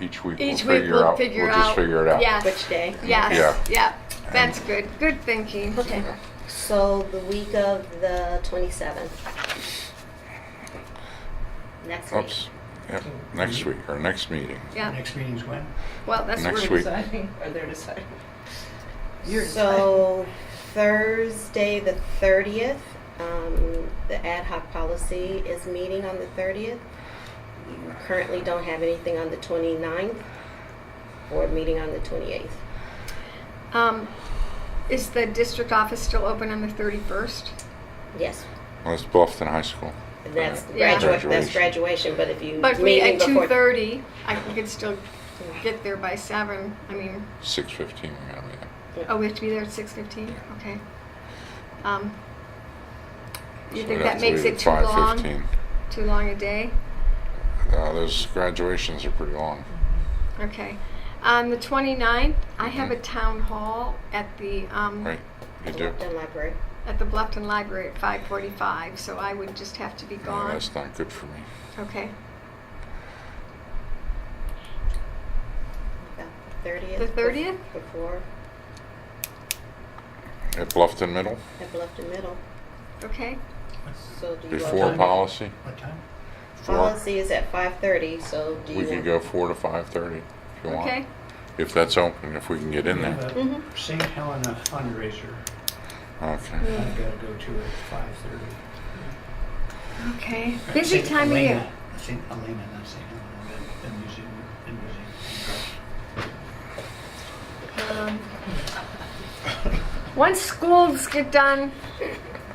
each week Each we'll week figure we'll out. figure we'll just out. figure it out. Yeah. Which day? Yeah. Yes, yeah. That's good. Good thinking. Okay. So the week of the 27th. Next week. Oops. Yep. Next week, our next meeting. Yeah. Next meeting's when? Well, that's Next rude. week. deciding, or they're deciding. So Thursday, the 30th, um, the ad hoc policy is meeting on the 30th. You currently don't have anything on the 29th. Board meeting on the 28th. Um, is the district office still open on the 31st? Yes. Well, it's Bluffton High School. And That's Yeah. graduate, that's Graduation. graduation, but if you. But me meeting at before- 2:30, I could still get there by 7. I mean, Six fifteen. We gotta be there. oh, we have to be there at 6:15? Okay. Um, you So think we'd have that to makes leave it at too long? 5:15. Too long a day? Uh, those graduations are pretty long. Okay. On the 29th, I have a Mhm. town hall at the, um, Right. You do. Upton Library. at the Bluffton Library at 5:45, so I would just have to be No, gone. that's not good for me. Okay. The 30th. The 30th? Before, At Bluffton Middle, I've left the middle. Okay. So do you. before want- policy, What time? four. Policy is at 5:30, so do you. We could want- go four to five thirty if you Okay. want. If that's open, if we can get in We have there. a Mm-hmm. Mhm. St. Helena fundraiser. Okay. Mm. I've got to go to at five thirty. Okay. Busy St. time of Helena- year. St. Helena, not St. Helena, the, the museum, the Um, museum. Once schools get done, we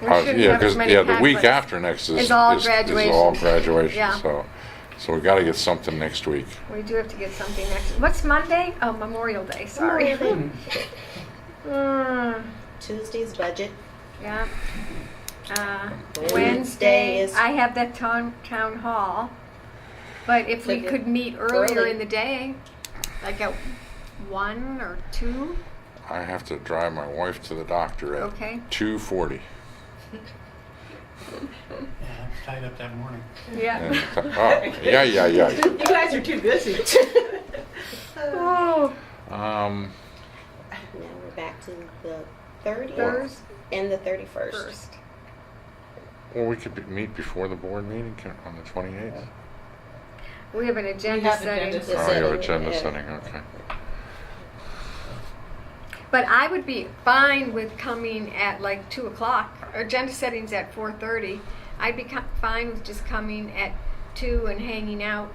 Uh, shouldn't yeah, have as 'cause- many yeah, the week conflicts. after next is It's all is- Is all graduation. graduation. Yeah. So, so we got to get something next week. We do have to get something next. What's Monday? Oh, Memorial Day. Sorry. Memorial Mm, Tuesday's budget. yeah. Uh, Wednesday Wednesday, is- I have that town town hall. But if we Like, could meet earlier early. in the day, like at one or two, I have to drive my wife to the doctor at okay. two forty. Yeah, I'm tied up that morning. Yeah. Oh, yeah, yeah, yeah. You guys are too busy. Oh, Um, Now we're back to the 30th Thurs- and the 31st. first. well, we could be, meet before the board meeting can- on the twenty eighth. We have an agenda have setting. agendas. The Oh, your setting, agenda yeah. setting. Okay. But I would be fine with coming at like two o'clock. Our Agenda setting's at four thirty. I'd be co- fine with just coming at two and hanging out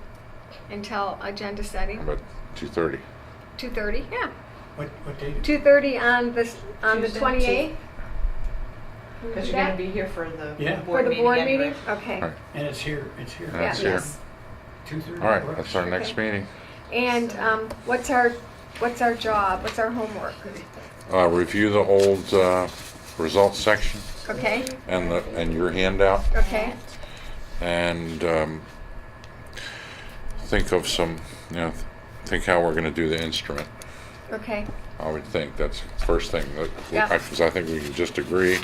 until agenda How setting. about two thirty? Two thirty, yeah. What, what date? Two thirty on this on the Tuesday. twenty eighth. Because you're going to be here for the Yeah. for board the meeting. board anyway. meeting. Okay. Right. And it's here, it's here. Yeah, it's Yeah. here. Yes. Two thirty. All right, that's our next meeting. And um, what's our what's our job? What's our homework? Uh, review the old uh, results section Okay. and the and your handout. Okay. and um, think of some, you know, think how we're going to do the instrument. Okay. I would think that's the first thing. that- Yeah. I, 'cause I think we can just agree,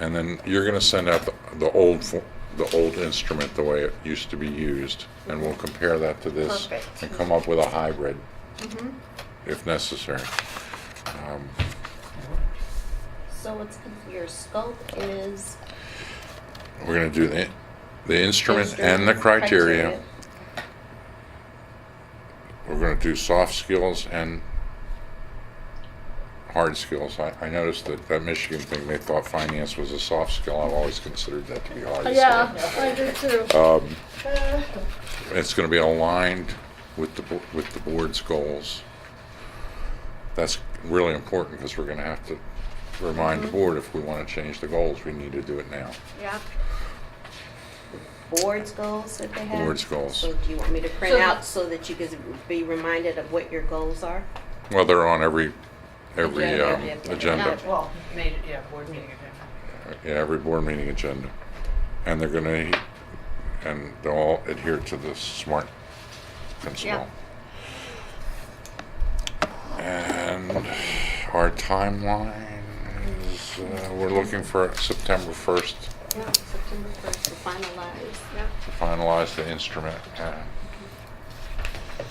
and then you're going to send out the, the old fo- the old instrument the way it used to be used, and we'll compare that to this Perfect. Mm-hmm. and come up with a hybrid, if necessary. Um, So what's your scope is we're going to do the the instrument, and the criteria. we're going to do soft skills and hard skills. I, I noticed that that Michigan thing, they thought finance was a soft skill. I've always considered that to be a hard. skill. I do too. Um, it's going to be aligned with the, bo- with the board's goals. That's really important because we're going to have to remind the board if we want to change the goals, we need to do it now. Yeah. board's goals that they have? Board's goals. So do you want me to print So- out so that you can be reminded of what your goals are? Well, they're on every, every Agenda, um, yeah, yeah. agenda. Well, made it, yeah, board meeting agenda. Yeah, every board meeting agenda. And they're gonna, and they'll all adhere to the SMART principle. And our timeline is, uh, we're looking for September 1st Yeah, September 1st to finalize. Yeah. to finalize the instrument. uh, and